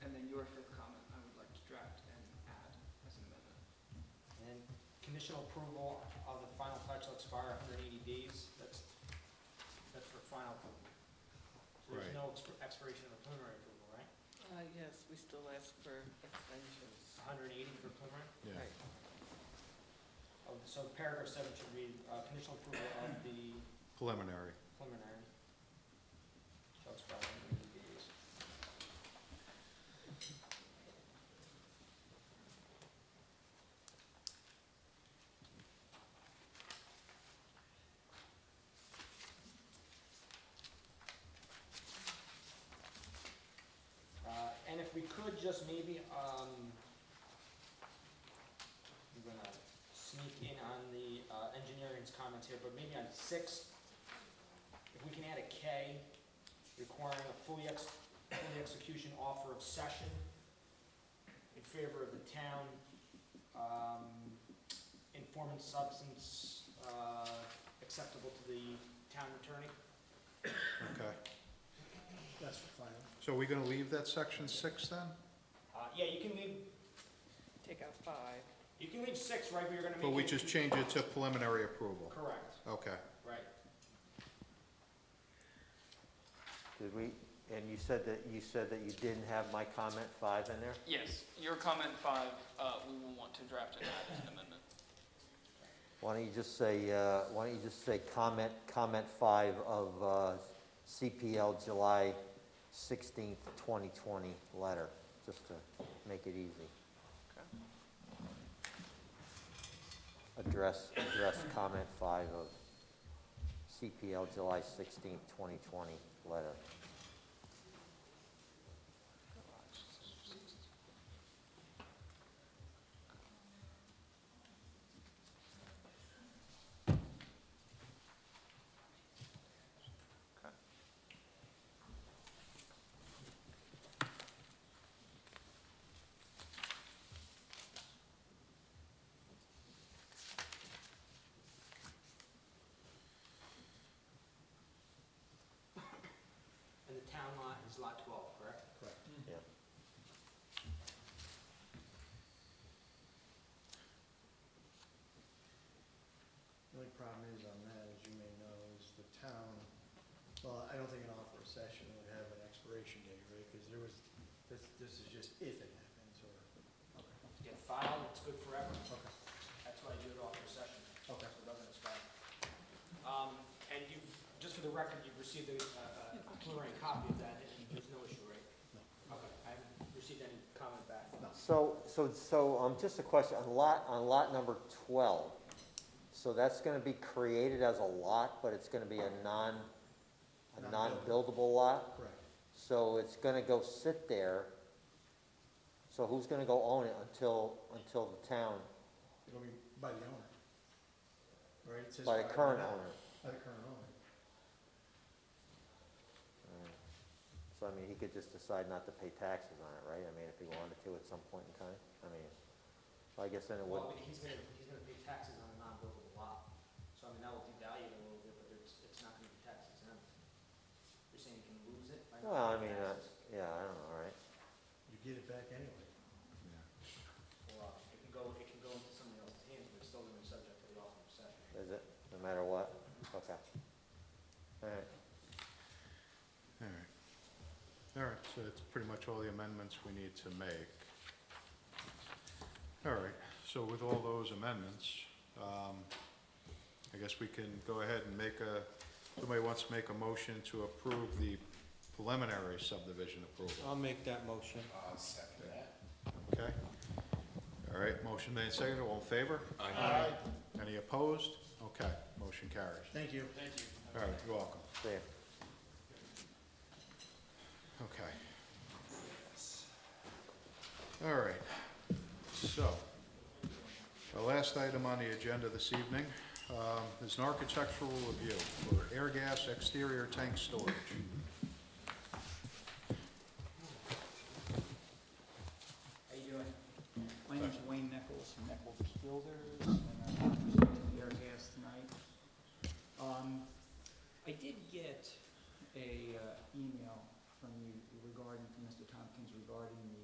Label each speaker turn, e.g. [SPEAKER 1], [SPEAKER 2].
[SPEAKER 1] conditional approval of the final plat shall expire hundred and eighty days, that's, that's for final approval. So there's
[SPEAKER 2] Right.
[SPEAKER 1] no exp- expiration of preliminary approval, right?
[SPEAKER 3] Uh, yes, we still ask for extensions.
[SPEAKER 1] hundred and eighty for preliminary?
[SPEAKER 2] Yeah,
[SPEAKER 3] Right.
[SPEAKER 1] Oh, So paragraph seven should read, uh, conditional approval of the
[SPEAKER 2] preliminary.
[SPEAKER 1] preliminary shall expire in 90 days. Uh, And if we could just maybe, um, I'm gonna sneak in on the uh, engineering's comments here, but maybe on six, if we can add a K requiring a fully ex, fully execution offer of session in favor of the town, um, informing substance, uh, acceptable to the town attorney.
[SPEAKER 2] Okay.
[SPEAKER 4] That's for final.
[SPEAKER 2] So are we going to leave that section six then?
[SPEAKER 1] Uh, yeah, you can leave,
[SPEAKER 3] Take out five.
[SPEAKER 1] you can leave six, right, but you're gonna make.
[SPEAKER 2] But we
[SPEAKER 1] it-
[SPEAKER 2] just change it to preliminary approval?
[SPEAKER 1] Correct,
[SPEAKER 2] Okay.
[SPEAKER 1] right.
[SPEAKER 5] Did we, and you said that, you said that you didn't have my comment five in there?
[SPEAKER 6] Yes, your comment five, uh, we will want to draft and add as an amendment.
[SPEAKER 5] Why don't you just say, uh, why don't you just say comment, comment five of uh, CPL July 16th, 2020 letter, just to make it easy.
[SPEAKER 6] Okay.
[SPEAKER 5] Address, address comment five of CPL July 16th, 2020 letter.
[SPEAKER 6] Okay.
[SPEAKER 1] And the town lot is lot twelve, correct?
[SPEAKER 5] Yeah.
[SPEAKER 4] The only problem is on that, as you may know, is the town, well, I don't think an offer of session would have an expiration date, right? Because there was, this, this is just if it happens, or, okay,
[SPEAKER 1] Get filed, it's good forever.
[SPEAKER 4] okay,
[SPEAKER 1] That's why I do it off your session.
[SPEAKER 4] Okay.
[SPEAKER 1] So it doesn't expire. Um, and you've, just for the record, you've received a, a a preliminary copy of that, and there's no issue, right? No. Okay, I haven't received any comment back.
[SPEAKER 5] So, so, so, um, just a question, on lot, on lot number twelve, so that's gonna be created as a lot, but it's gonna be a non, a
[SPEAKER 4] Non-buildable.
[SPEAKER 5] non-buildable lot?
[SPEAKER 4] correct.
[SPEAKER 5] So it's gonna go sit there, so who's gonna go own it until, until the town,
[SPEAKER 4] It'll be by the owner. Right? It says
[SPEAKER 5] by the current owner?
[SPEAKER 4] By the current owner.
[SPEAKER 5] Mm. So I mean, he could just decide not to pay taxes on it, right? I mean, if he wanted to at some point in time, I mean, I guess then it would.
[SPEAKER 1] Well, I mean, he's gonna, he's gonna pay taxes on a non-buildable lot, so I mean, that will devalue it a little bit, but it's, it's not gonna be taxed exempt. You're saying you can lose it by not
[SPEAKER 5] Well, I
[SPEAKER 1] paying
[SPEAKER 5] mean, uh,
[SPEAKER 1] taxes?
[SPEAKER 5] yeah, I don't know, right?
[SPEAKER 4] You get it back anyway.
[SPEAKER 1] Or uh, it can go, it can go into somebody else's hands, but it's still gonna be subject to the offer of session.
[SPEAKER 5] Is it, no matter what? Okay. All right,
[SPEAKER 2] All right. All right, so that's pretty much all the amendments we need to make. All right, so with all those amendments, um, I guess we can go ahead and make a, somebody wants to make a motion to approve the preliminary subdivision approval.
[SPEAKER 7] I'll make that motion.
[SPEAKER 2] Okay. All right, motion made, seconded, all in favor? Aye. Any opposed? Okay, motion carries.
[SPEAKER 4] Thank you.
[SPEAKER 2] All right, you're welcome.
[SPEAKER 5] there.
[SPEAKER 2] Okay. All right, so, the last item on the agenda this evening um, is an architectural review for air gas exterior tank storage.
[SPEAKER 1] Um, uh,